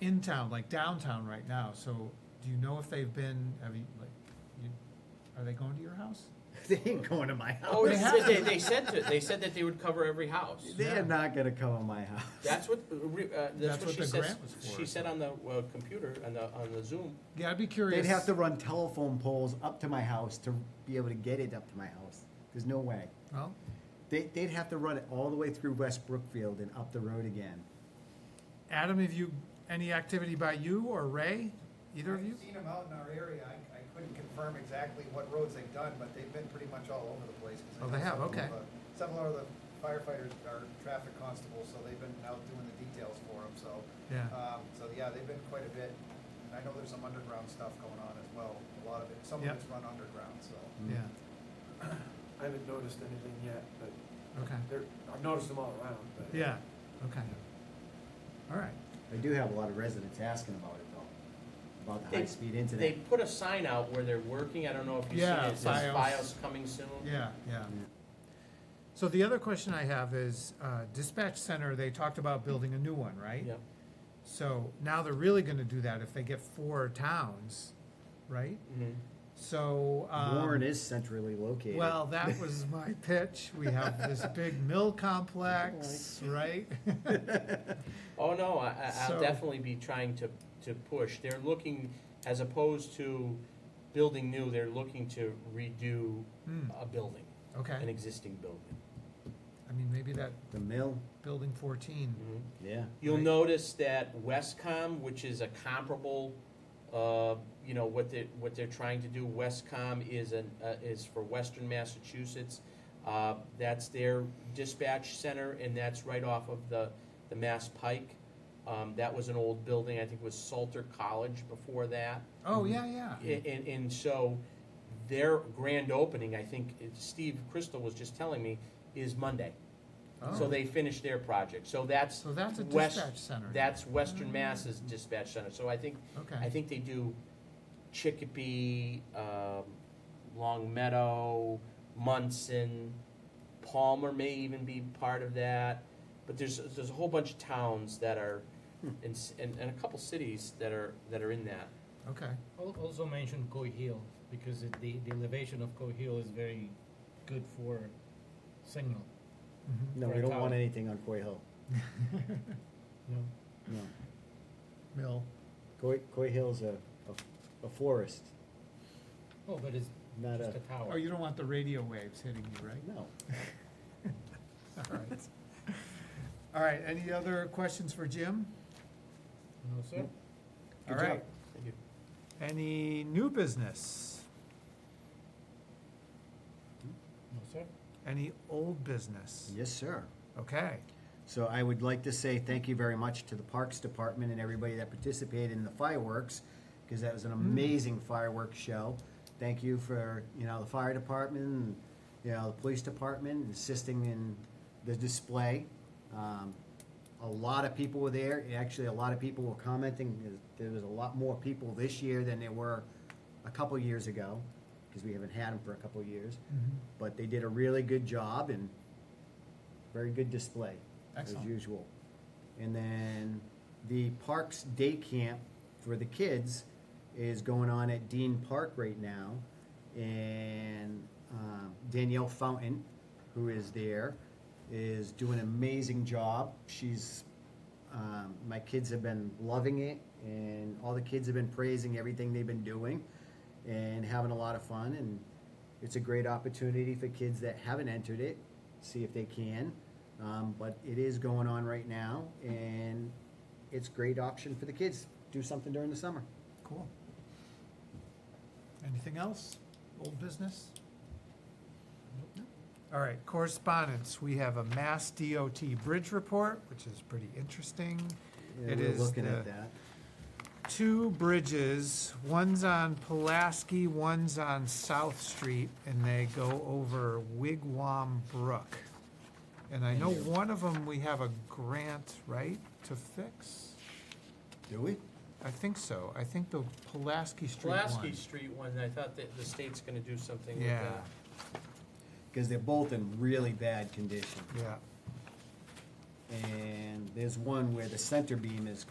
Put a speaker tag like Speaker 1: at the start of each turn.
Speaker 1: in town, like downtown right now, so do you know if they've been, have you, like, you, are they going to your house?
Speaker 2: They ain't going to my
Speaker 3: Oh,
Speaker 2: house.
Speaker 3: they
Speaker 1: They
Speaker 3: said, they,
Speaker 1: have.
Speaker 3: they said to, they said that they would cover every house.
Speaker 2: They
Speaker 1: Yeah.
Speaker 2: are not gonna come to my house.
Speaker 3: That's what, uh, re- uh,
Speaker 1: That's
Speaker 3: that's
Speaker 1: what
Speaker 3: what she
Speaker 1: the
Speaker 3: says,
Speaker 1: grant was for.
Speaker 3: she said on the, uh, computer, on the, on the Zoom.
Speaker 1: Yeah, I'd be curious.
Speaker 2: They'd have to run telephone poles up to my house to be able to get it up to my house. There's no way.
Speaker 1: Well,
Speaker 2: They, they'd have to run it all the way through West Brookfield and up the road again.
Speaker 1: Adam, have you, any activity by you or Ray, either of you?
Speaker 4: I've seen them out in our area, I, I couldn't confirm exactly what roads they've done, but they've been pretty much all over the place. 'cause I
Speaker 1: Oh,
Speaker 4: know
Speaker 1: they have,
Speaker 4: several of
Speaker 1: okay.
Speaker 4: the- Several of the firefighters are traffic constables, so they've been out doing the details for them, so.
Speaker 1: Yeah.
Speaker 4: Um, so, yeah, they've been quite a bit, and I know there's some underground stuff going on as well, a lot of it, some of
Speaker 1: Yep.
Speaker 4: it's run underground, so.
Speaker 1: Yeah,
Speaker 5: I haven't noticed anything yet, but
Speaker 1: okay,
Speaker 5: they're, I've noticed them all around, but.
Speaker 1: yeah, okay. All right,
Speaker 2: I do have a lot of residents asking about it though, about the
Speaker 3: They-
Speaker 2: high-speed internet.
Speaker 3: They put a sign out where they're working, I don't know if you've seen
Speaker 1: Yeah,
Speaker 3: it, it says
Speaker 1: BIOS.
Speaker 3: BIOS coming soon.
Speaker 1: yeah, yeah.
Speaker 2: Yeah.
Speaker 1: So the other question I have is, uh, dispatch center, they talked about building a new one, right?
Speaker 3: Yeah.
Speaker 1: So now they're really gonna do that if they get four towns, right?
Speaker 3: Mhm.
Speaker 1: So, um.
Speaker 2: Warren is centrally located.
Speaker 1: Well, that was my pitch. We have this big mill complex, right?
Speaker 3: Oh, no, I, I-
Speaker 1: So-
Speaker 3: I'll definitely be trying to, to push, they're looking, as opposed to building new, they're looking to redo
Speaker 1: Hmm,
Speaker 3: a building, an
Speaker 1: Okay,
Speaker 3: existing building.
Speaker 1: I mean, maybe that
Speaker 2: The mill,
Speaker 1: building fourteen,
Speaker 3: Mhm.
Speaker 2: yeah.
Speaker 3: You'll
Speaker 1: Right.
Speaker 3: notice that Westcom, which is a comparable, uh, you know, what they, what they're trying to do, Westcom is an, uh, is for western Massachusetts. Uh, that's their dispatch center, and that's right off of the, the Mass Pike. Um, that was an old building, I think it was Salter College before that.
Speaker 1: oh, yeah, yeah,
Speaker 3: A- And, and so their grand opening, I think, it- Steve Crystal was just telling me, is Monday. So
Speaker 1: Oh.
Speaker 3: they finished their project, so that's.
Speaker 1: So that's a
Speaker 3: West-
Speaker 1: dispatch center.
Speaker 3: That's Western Mass's dispatch center, so I think, I
Speaker 1: Okay,
Speaker 3: think they do Chicopee, um, Long Meadow, Munson, Palmer may even be part of that, but there's, there's a whole bunch of towns that are, and, s- and, and a couple cities that are, that are in that.
Speaker 1: okay,
Speaker 6: Al- Also mention Cohill, because it, the, the elevation of Cohill is very good for signal,
Speaker 1: mhm,
Speaker 2: No, we don't want anything on Coy Hill,
Speaker 6: you know?
Speaker 2: no.
Speaker 1: mill,
Speaker 2: Coy, Coy Hill's a, a- a forest,
Speaker 6: Oh, but it's
Speaker 2: Not
Speaker 6: just
Speaker 2: a-
Speaker 6: a tower.
Speaker 1: oh, you don't want the radio waves hitting you, right?
Speaker 2: no.
Speaker 1: All right. All right, any other questions for Jim?
Speaker 6: No, sir?
Speaker 1: All
Speaker 2: Good
Speaker 1: right,
Speaker 2: job.
Speaker 3: Thank you.
Speaker 1: any new business?
Speaker 6: No, sir?
Speaker 1: Any old business?
Speaker 2: Yes, sir.
Speaker 1: Okay,
Speaker 2: So I would like to say thank you very much to the Parks Department and everybody that participated in the fireworks, because that was an amazing fireworks show. Thank you for, you know, the fire department, and, you know, the police department assisting in the display. Um, A lot of people were there, and actually, a lot of people were commenting, there was a lot more people this year than there were a couple years ago, because we haven't had them for a couple years. But they did a really good job, and very good display, as
Speaker 1: Excellent.
Speaker 2: usual. And then the Parks Day Camp for the kids is going on at Dean Park right now. And um, Danielle Fountain, who is there, is doing an amazing job. She's, um, my kids have been loving it, and all the kids have been praising everything they've been doing and having a lot of fun. And it's a great opportunity for kids that haven't entered it, see if they can. Um, but it is going on right now, and it's a great option for the kids. Do something during the summer.
Speaker 1: cool. Anything else? Old business? All right, correspondence. We have a Mass DOT bridge report, which is pretty interesting.
Speaker 2: Yeah,
Speaker 1: It
Speaker 2: we're
Speaker 1: is
Speaker 2: looking at
Speaker 1: the-
Speaker 2: that.
Speaker 1: Two bridges, one's on Pulaski, one's on South Street, and they go over Wigwam Brook. And I know one of them, we have a grant, right, to fix?
Speaker 2: Do we?
Speaker 1: I think so. I think the Pulaski Street one.
Speaker 3: Pulaski Street one, I thought that the state's gonna do something with
Speaker 1: Yeah,
Speaker 3: that.
Speaker 2: Because they're both in really bad condition,
Speaker 1: yeah.
Speaker 2: and there's one where the center beam is